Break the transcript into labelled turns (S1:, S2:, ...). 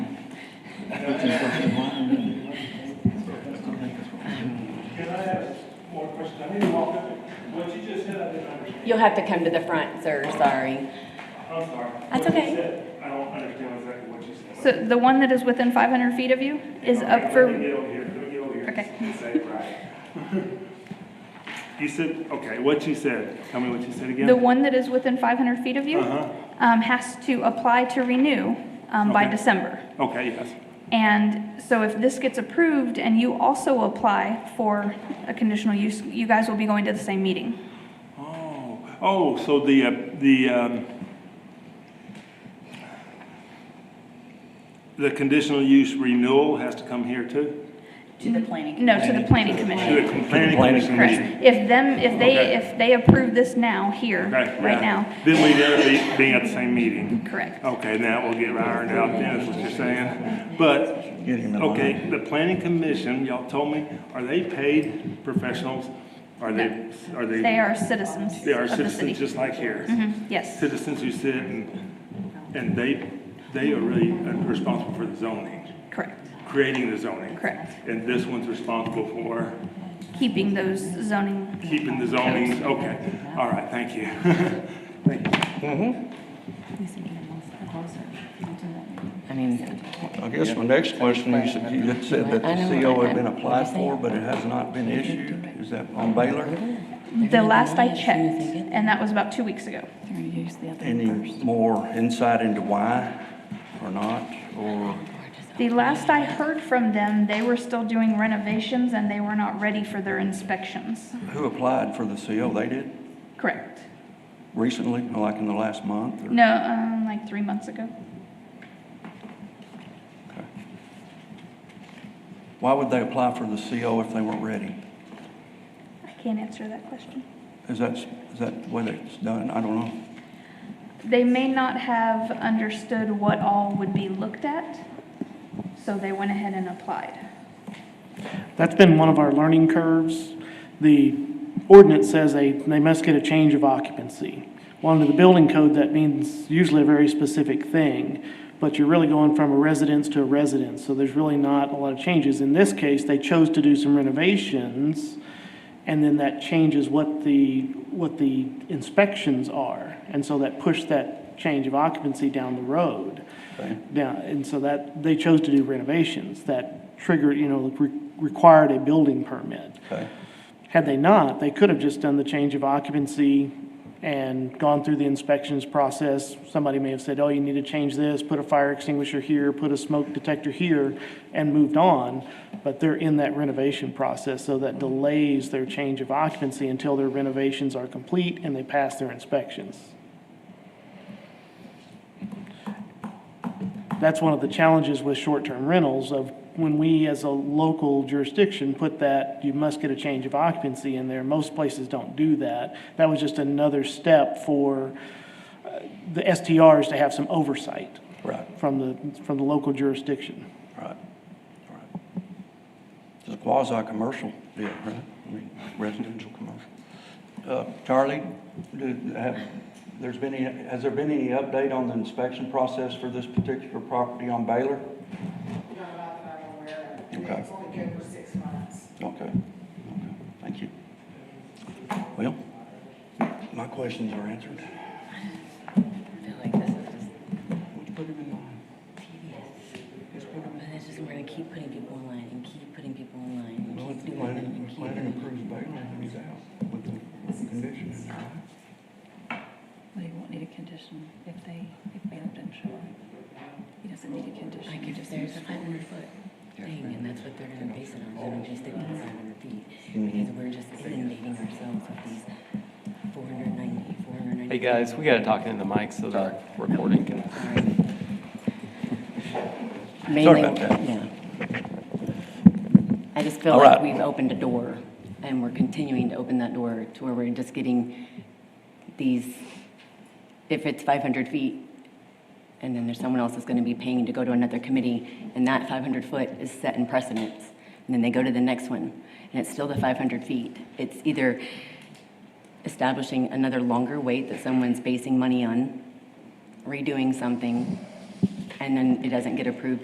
S1: Can I ask more questions? I need to walk up, what you just said, I didn't understand.
S2: You'll have to come to the front, sir, sorry.
S1: I'm sorry.
S2: That's
S1: What you
S2: okay.
S1: said, I don't understand exactly what you said.
S3: So the one that is within 500 feet of you is
S1: Okay,
S3: up for
S1: Let me get over here, let me get over here.
S3: Okay.
S1: You say it right. You said, okay, what you said, tell me what you said again?
S3: The one that is within 500 feet of you
S1: Uh-huh.
S3: um, has to apply to renew um, by
S1: Okay.
S3: December.
S1: Okay, yes,
S3: And so if this gets approved and you also apply for a conditional use, you guys will be going to the same meeting.
S1: oh, oh, so the, uh, the, um, the conditional use renewal has to come here too?
S4: To the planning.
S3: No, to the planning
S1: To the
S3: commission.
S1: planning commission
S3: Correct.
S1: meeting?
S3: If them, if
S1: Okay.
S3: they, if they approve this now, here,
S1: Okay, yeah.
S3: right now,
S1: Then we'd have to be being at the same meeting.
S3: correct.
S1: Okay, now we'll get ironed out then, is what you're saying. But,
S5: Get him in
S1: okay, the planning commission, y'all told me, are they paid professionals? Are they, are they?
S3: They are citizens of
S1: They are
S3: the
S1: citizens
S3: city.
S1: just like here.
S3: Mhm, Yes,
S1: Citizens who sit and, and they, they are really responsible for the zoning,
S3: correct,
S1: creating the zoning.
S3: correct.
S1: And this one's responsible for
S3: Keeping those zoning
S1: keeping the zoning, okay. All right, thank you. Thank you.
S2: I mean,
S5: I guess my next question, you said, you had said that
S2: I know,
S5: the CO had been
S2: I- I-
S5: applied for, but it has not been issued. Is that on Baylor?
S3: The last I checked, and that was about two weeks ago.
S4: They're gonna use the other
S5: Any
S4: one first.
S5: more insight into why or not, or?
S3: The last I heard from them, they were still doing renovations and they were not ready for their inspections.
S5: Who applied for the CO? They did
S3: Correct.
S5: recently, like in the last month? or-
S3: No, um, like three months ago.
S5: Okay. Why would they apply for the CO if they weren't ready?
S3: I can't answer that question.
S5: Is that, is that the way that's done? I don't know.
S3: They may not have understood what all would be looked at, so they went ahead and applied.
S6: That's been one of our learning curves. The ordinance says they, they must get a change of occupancy. Well, under the building code, that means usually a very specific thing, but you're really going from a residence to a residence, so there's really not a lot of changes. In this case, they chose to do some renovations, and then that changes what the, what the inspections are. And so that pushed that change of occupancy down the road.
S5: Okay.
S6: Down, and so that, they chose to do renovations that triggered, you know, re- required a building permit.
S5: Okay.
S6: Had they not, they could have just done the change of occupancy and gone through the inspections process. Somebody may have said, oh, you need to change this, put a fire extinguisher here, put a smoke detector here, and moved on. But they're in that renovation process, so that delays their change of occupancy until their renovations are complete and they pass their inspections. That's one of the challenges with short-term rentals of when we, as a local jurisdiction, put that, you must get a change of occupancy in there. Most places don't do that. That was just another step for uh, the STRs to have some oversight
S5: Right,
S6: from the, from the local jurisdiction.
S5: right, right. It's a quasi-commercial deal, right? I mean, residential commercial. Uh, Charlie, do, have, there's been any, has there been any update on the inspection process for this particular property on
S7: No,
S5: Baylor?
S7: not that I'm aware of.
S5: Okay.
S7: It's only good for six months.
S5: Okay, okay, thank you. Well, my questions are answered.
S4: I feel like this is just
S5: Let's put it in line.
S4: tedious. But it's just, we're gonna keep putting people in line and keep putting people in line
S5: Well,
S4: and
S5: if
S4: keep
S5: the
S4: doing
S5: planning,
S4: it and
S5: if
S4: keep.
S5: planning
S4: doing
S5: approves Baylor, then he's out with the, with the condition in there, right?
S4: it. Well, he won't need a condition if they, if Baylor didn't show up. He doesn't need a condition.
S2: like if there's a five hundred foot thing, and that's what they're gonna base it on, they're gonna just stick with five hundred feet.
S5: Mm-hmm.
S2: Because we're just inundating ourselves with these 490, 490.
S8: Hey, guys, we gotta talk into the mic so the recording can.
S2: Mainly,
S5: about that.
S2: yeah. I just feel
S5: All
S2: like
S5: right.
S2: we've opened a door, and we're continuing to open that door to where we're just getting these, if it's 500 feet, and then there's someone else that's going to be paying to go to another committee, and that 500 foot is set in precedence, and then they go to the next one, and it's still the 500 feet. It's either establishing another longer wait that someone's basing money on, redoing something, and then it doesn't get approved